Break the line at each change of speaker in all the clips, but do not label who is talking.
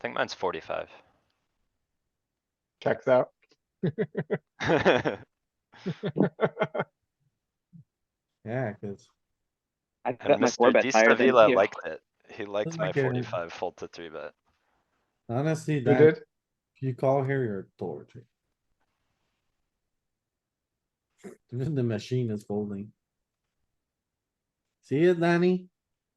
think mine's forty-five.
Checks out.
Yeah, cuz
I bet
And
my four
Mr. Di
bet higher than
Stavila
you.
liked it. He liked my
like a-
forty-five fold to three bet.
honestly,
You
that,
did?
you call here, you're tortured. Even the machine is folding. See it, Danny?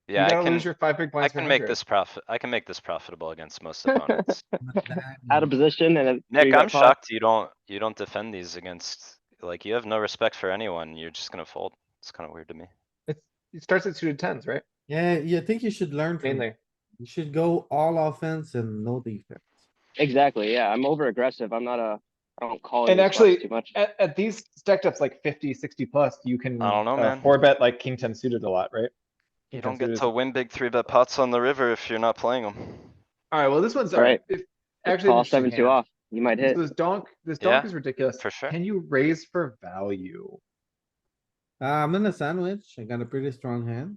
You
Yeah, I
gotta
can,
lose your five big
I
blinds.
can make
behind
this profit, I can make this profitable against most opponents.
Out of position and a three
Nick,
bet
I'm
pot.
shocked you don't, you don't defend these against, like, you have no respect for anyone. You're just gonna fold. It's kinda weird to me.
you. It starts at suited tens, right?
Yeah, you think you should learn from,
Mainly.
you should go all offense and no defense.
Exactly, yeah, I'm over aggressive, I'm not a, I don't call.
And
these
actually-
spots Too much.
At, at these stacked ups like 50, 60 plus, you can.
I don't know,
uh,
man.
Four bet like king ten suited a lot, right?
You
King
don't
10
get
suited.
to win big three bet pots on the river if you're not playing them.
Alright, well, this one's.
All right.
if- Actually. an
Call
interesting
seven two
hand.
off, you might
So
hit.
This donk, this donk
Yeah,
is ridiculous.
for sure.
Can you raise for value?
Uh, I'm in a sandwich. I got a pretty strong hand.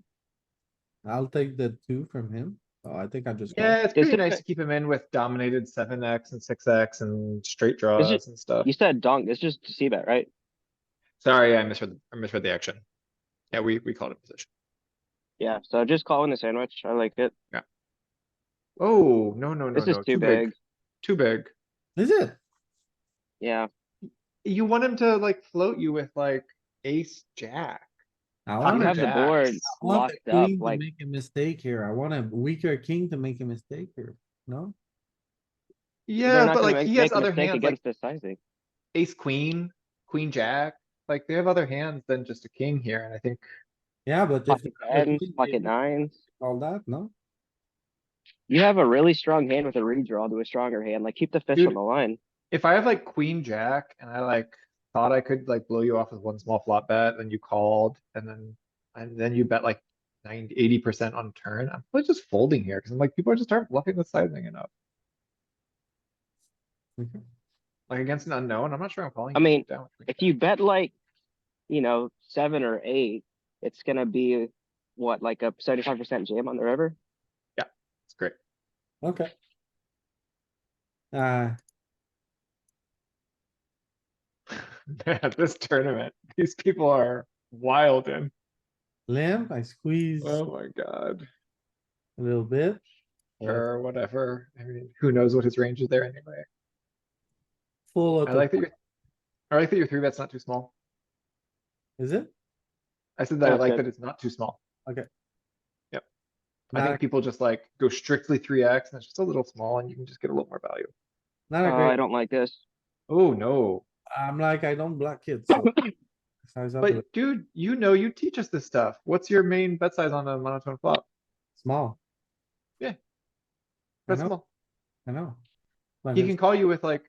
I'll take the two from him. Oh, I think I just. call.
Yeah, it's
Does
pretty
it-
nice to keep him in with dominated seven X and six X and straight
it-
draws and stuff.
You said donk, it's just C bet, right?
Sorry, I misread, I misread the action. Yeah, we, we called it position.
Yeah, so just call in the sandwich, I like it.
Oh, no, no, no, no.
This is too big,
Too big.
Is it?
yeah.
You want him to like float you with like ace, jack.
I
You
I'm
wanna,
have
I
the
jack.
board
want
locked
the
up,
queen to
like,
make a mistake here. I want a weaker king to make a mistake here, no?
they're
Yeah,
not
but
gonna
like
make
he
make
has
a
other hands,
mistake
like
against this sizing.
ace, queen, queen, jack. Like they have other hands than just a king here, and I think
Yeah, but if.
Pocket
I
tens,
think
pocket
they
nines.
All that, no?
You have a really strong hand with a redraw to a stronger hand, like keep the fish
Dude.
on the line.
if I have like queen, jack, and I like thought I could like blow you off with one small flop bet, then you called, and then and then you bet like 90 80 percent on turn. I'm probably just folding here because I'm like people just aren't bluffing with sizing enough.
Okay.
Like against an unknown, I'm not sure I'm calling.
I
you
mean,
down with queen
If
jack.
you bet like, you know, seven or eight, it's gonna be what, like a seventy-five percent jam on the river?
it's great.
Okay. Uh,
Man, this tournament, these people are wild in.
limp, I squeeze
Oh
a
my god.
little bit. Uh,
Or whatever. I mean, who knows what his range is there anyway.
Full
I like that
auto,
your, I like that your three bet's not too small.
is it?
I said that I
That's
like
good.
that it's not too small.
Okay.
Yep. I think
Back.
people just like go strictly three X and it's just a little small and you can just get a little more value.
Not a
Oh, I
great,
don't like this.
Oh, no.
I'm like, I don't block it, so. Size up, a little
But dude, you know, you teach us this stuff. What's your main bet size on a monotone flop?
small.
Yeah.
I
That's
know,
small.
I know. But
He
it's-
can call you with like,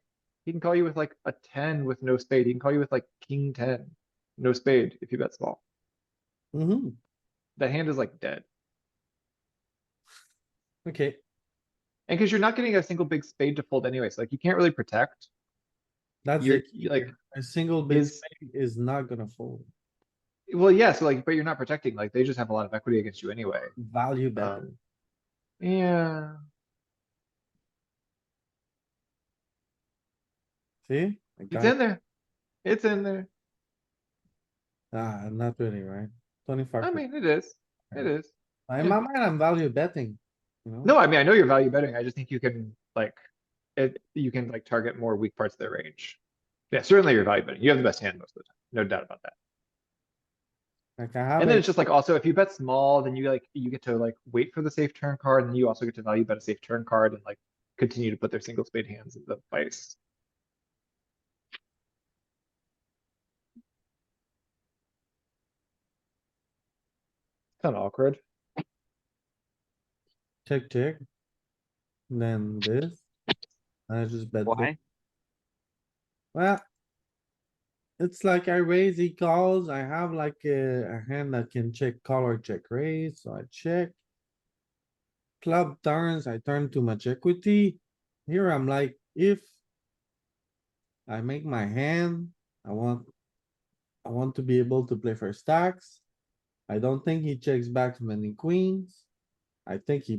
he can call you with like a ten with no spade. He can call you with like king ten, no spade if you bet small.
Mhm,
That hand is like dead.
okay,
And because you're not getting a single big spade to fold anyway, so like you can't really protect.
that's
You're
it.
you, like,
A single big
is,
spade is not gonna fold.
well, yeah, so like, but you're not protecting, like they just have a lot of equity against you anyway.
Value bet.
Um, Yeah,
see? I got
it's in there. It's in there.
it. Ah, not really, right? Twenty-five.
I mean, it is. It is.
In my mind, I'm value betting, you know?
No, I mean, I know you're value betting. I just think you can like, it, you can like target more weak parts of their range. Yeah, certainly you're value betting. You have the best hand most of the time. No doubt about that.
Like I have.
And then
a-
it's just like also if you bet small, then you like, you get to like wait for the safe turn card and then you also get to value bet a safe turn card and like continue to put their single spade hands in the vice. Kind of awkward.
Check, check. And Then this. I just bet. this.
Why?
Well. It's like I raise, he calls. I have like a, a hand that can check call or check raise, so I check. Club turns, I turn too much equity. Here I'm like, if. I make my hand, I want. I want to be able to play for stacks. I don't think he checks back many queens. I think he